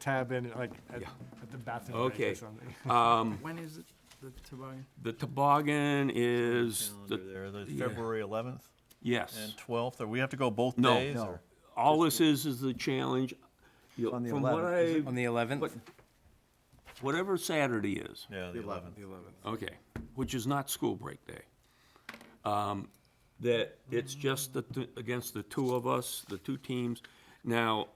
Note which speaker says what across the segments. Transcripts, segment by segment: Speaker 1: tab in, like, at
Speaker 2: Yeah.
Speaker 1: at the bathroom break
Speaker 2: Okay. Uh,
Speaker 1: or something.
Speaker 3: When is it, the toboggan?
Speaker 2: The toboggan is, the-
Speaker 4: Calendar there, the
Speaker 2: yeah.
Speaker 4: February 11th
Speaker 2: yes.
Speaker 4: and 12th, or we have to go both
Speaker 2: No.
Speaker 4: days?
Speaker 5: No.
Speaker 4: or-
Speaker 2: All this is, is the challenge. You-
Speaker 5: On the
Speaker 2: From what
Speaker 5: 11th,
Speaker 2: I,
Speaker 6: On the 11th?
Speaker 2: what- whatever Saturday is,
Speaker 4: Yeah, the 11th.
Speaker 6: The 11th.
Speaker 2: okay, which is not school break day. um, That it's just the, t- against the two of us, the two teams. Now,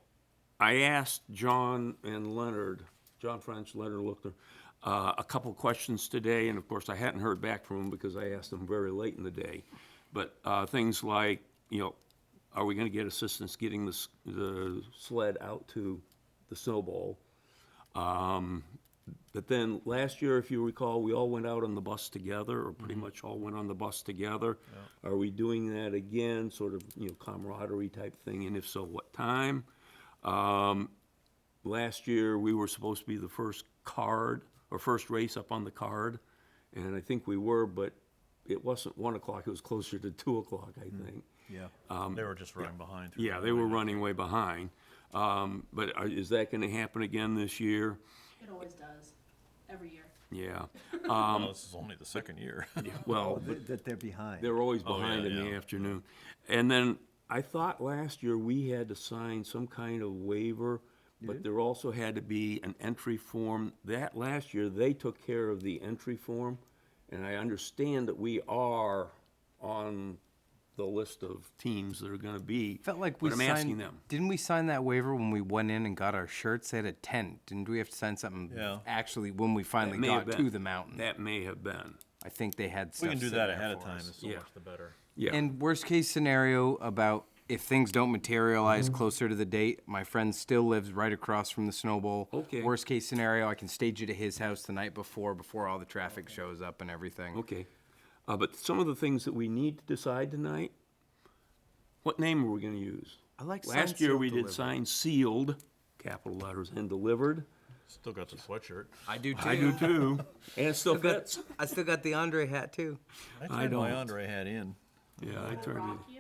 Speaker 2: I asked John and Leonard, John French, Leonard Luckner, uh, a couple questions today, and of course, I hadn't heard back from them because I asked them very late in the day. But uh, things like, you know, are we going to get assistance getting the s- the sled out to the snowball? Um, But then, last year, if you recall, we all went out on the bus together, or pretty much all went on the bus together. Are we doing that again, sort of, you know, camaraderie type thing, and if so, what time? Um, Last year, we were supposed to be the first card, or first race up on the card, and I think we were, but it wasn't one o'clock, it was closer to two o'clock, I think.
Speaker 4: Yeah, they were just running behind. through
Speaker 2: Yeah,
Speaker 4: the
Speaker 2: they were
Speaker 4: line.
Speaker 2: running way behind. Um, But are- is that gonna happen again this year?
Speaker 7: It always does, every year.
Speaker 2: Yeah,
Speaker 4: Well, This is only the second year.
Speaker 2: well,
Speaker 5: Oh, th- That they're behind.
Speaker 2: They're always
Speaker 4: Oh, yeah,
Speaker 2: behind in the
Speaker 4: yeah.
Speaker 2: afternoon. And then I thought last year we had to sign some kind of waiver, but there also had to be an entry form. That last year, they took care of the entry form, and I understand that we are on the list of teams that are gonna be.
Speaker 6: Felt like we
Speaker 2: But
Speaker 6: signed.
Speaker 2: I'm asking them.
Speaker 6: Didn't we sign that waiver when we went in and got our shirts at a tent? Didn't we have to sign something?
Speaker 4: Yeah.
Speaker 6: Actually, when we
Speaker 2: That
Speaker 6: finally
Speaker 2: may have
Speaker 6: got to
Speaker 2: been-
Speaker 6: the mountain,
Speaker 2: That may have been,
Speaker 6: I think they had
Speaker 4: We
Speaker 6: stuff.
Speaker 4: can do
Speaker 6: sitting
Speaker 4: that
Speaker 6: there
Speaker 4: ahead of
Speaker 6: for
Speaker 4: time,
Speaker 6: us.
Speaker 4: it's so
Speaker 2: Yeah.
Speaker 4: much the better.
Speaker 2: yeah.
Speaker 6: And worst case scenario about if things don't materialize
Speaker 4: Mm-hmm.
Speaker 6: closer to the date, my friend still lives right across from the snowball.
Speaker 2: Okay.
Speaker 6: Worst case scenario, I can stage it at his house the night before, before all the traffic shows up and everything.
Speaker 2: Okay. Uh, but some of the things that we need to decide tonight, what name are we gonna use?
Speaker 6: I like
Speaker 2: Last
Speaker 6: signed,
Speaker 2: year,
Speaker 6: sealed,
Speaker 2: we did
Speaker 6: delivered.
Speaker 2: sign sealed, capital letters, and delivered.
Speaker 4: Still got the sweatshirt.
Speaker 6: I do too.
Speaker 2: I do too. And it still fits.
Speaker 6: I still got the Andre hat too.
Speaker 4: I turned my
Speaker 2: don't.
Speaker 4: Andre hat in.
Speaker 2: Yeah, I
Speaker 7: We will
Speaker 2: turned
Speaker 7: rock you.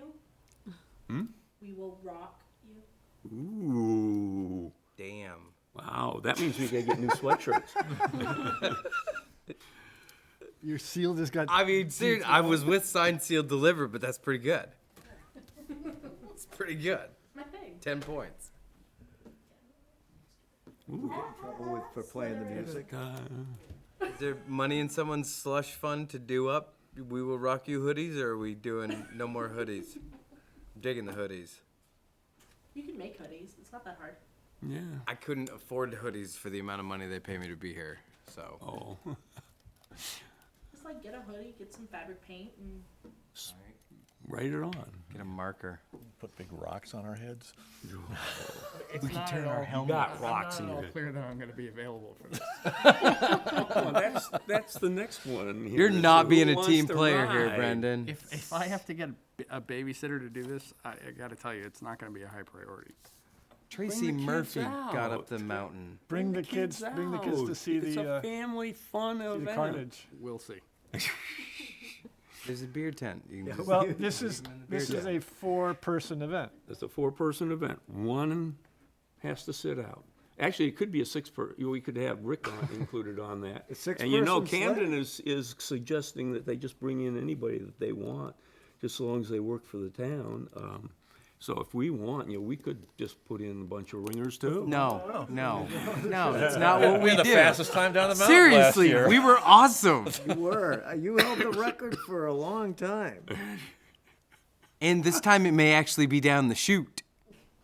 Speaker 7: We will rock you.
Speaker 2: it. Ooh,
Speaker 6: Damn.
Speaker 2: wow, that means we gotta get new sweatshirts.
Speaker 1: Your seal just got,
Speaker 6: I mean, seriously, I was with signed, sealed, delivered, but that's pretty good. It's pretty good.
Speaker 7: My thing.
Speaker 6: Ten points.
Speaker 5: Trouble with- For playing the music.
Speaker 2: uh,
Speaker 6: Is there money in someone's slush fund to do up? We will rock you hoodies, or are we doing no more hoodies? I'm digging the hoodies.
Speaker 7: You can make hoodies. It's not that hard.
Speaker 2: Yeah.
Speaker 6: I couldn't afford hoodies for the amount of money they pay me to be here. So
Speaker 2: Oh,
Speaker 7: Just like get a hoodie, get some fabric paint, and
Speaker 2: write it on.
Speaker 6: get a marker.
Speaker 4: Put big rocks on our heads.
Speaker 1: we can turn our helmet.
Speaker 2: Got rocks in
Speaker 1: I'm not at all
Speaker 2: it.
Speaker 1: clear that I'm gonna be available for this.
Speaker 2: Oh, that's, that's the next one. here.
Speaker 6: You're
Speaker 2: So
Speaker 6: not
Speaker 2: who
Speaker 6: being a
Speaker 2: wants
Speaker 6: team
Speaker 2: to
Speaker 6: player here,
Speaker 2: ride?
Speaker 6: Brendan.
Speaker 1: If, if I have to get a b- a babysitter to do this, I, I gotta tell you, it's not gonna be a high priority.
Speaker 6: Tracy
Speaker 2: the kids
Speaker 6: Murphy got
Speaker 2: out.
Speaker 6: up the mountain.
Speaker 1: Bring the kids, bring the kids to
Speaker 2: out.
Speaker 1: see
Speaker 2: It's
Speaker 1: the,
Speaker 2: a
Speaker 1: uh,
Speaker 2: family fun
Speaker 1: see the
Speaker 2: event.
Speaker 1: carnage. We'll see.
Speaker 6: There's a beer tent. You can just-
Speaker 1: Well, this is, this is a four-person event.
Speaker 2: It's a four-person event. One has to sit out. Actually, it could be a six-per, you- we could have Rick on- included on that. And you know,
Speaker 1: six-person slate.
Speaker 2: Camden is, is suggesting that they just bring in anybody that they want, just so long as they work for the town. Um, So if we want, you know, we could just put in a bunch of ringers too.
Speaker 6: No, no, no. That's not what we
Speaker 4: The
Speaker 6: do.
Speaker 4: fastest time down the mountain last
Speaker 6: Seriously,
Speaker 4: year.
Speaker 6: we were awesome.
Speaker 5: You were, Uh, you held the record for a long time.
Speaker 6: And this time it may actually be down the chute.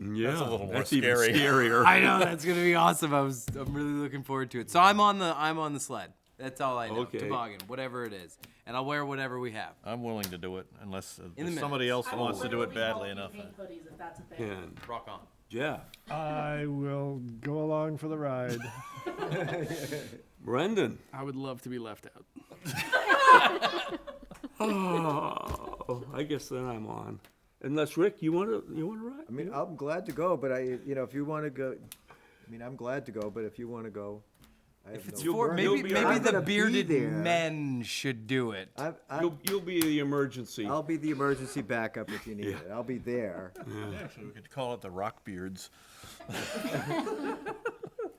Speaker 2: Yeah,
Speaker 4: a little more
Speaker 2: that's even
Speaker 4: scary.
Speaker 2: scarier.
Speaker 6: I know that's gonna be awesome. I was I'm really looking forward to it. So I'm on the I'm on the sled. That's all I know.
Speaker 2: Okay.
Speaker 6: Toboggan, whatever it is, and I'll wear whatever we have.
Speaker 4: I'm willing to do it unless uh,
Speaker 6: In the
Speaker 4: somebody else
Speaker 7: I will
Speaker 4: wants to do it
Speaker 7: literally help
Speaker 4: badly
Speaker 7: you
Speaker 4: enough.
Speaker 7: Paint hoodies if that's a thing.
Speaker 2: And
Speaker 6: Rock on.
Speaker 2: Jeff,
Speaker 1: I will go along for the ride.
Speaker 2: Brendan,
Speaker 1: I would love to be left out.
Speaker 2: oh, I guess then I'm on. Unless, Rick, you wanna, you wanna ride?
Speaker 5: I mean, I'm glad to go, but I, you know, if you want to go, I mean, I'm glad to go, but if you want to go, I have
Speaker 6: It's
Speaker 5: no.
Speaker 6: for
Speaker 2: burn-
Speaker 6: maybe
Speaker 2: you'll be all
Speaker 6: maybe
Speaker 2: right.
Speaker 5: I'm
Speaker 6: the
Speaker 5: gonna be
Speaker 6: bearded
Speaker 5: there.
Speaker 6: men should do it.
Speaker 5: I, I,
Speaker 2: You'll, you'll be the emergency.
Speaker 5: I'll be the emergency backup if you need it. I'll be there.
Speaker 4: Actually, we could call it the rock beards.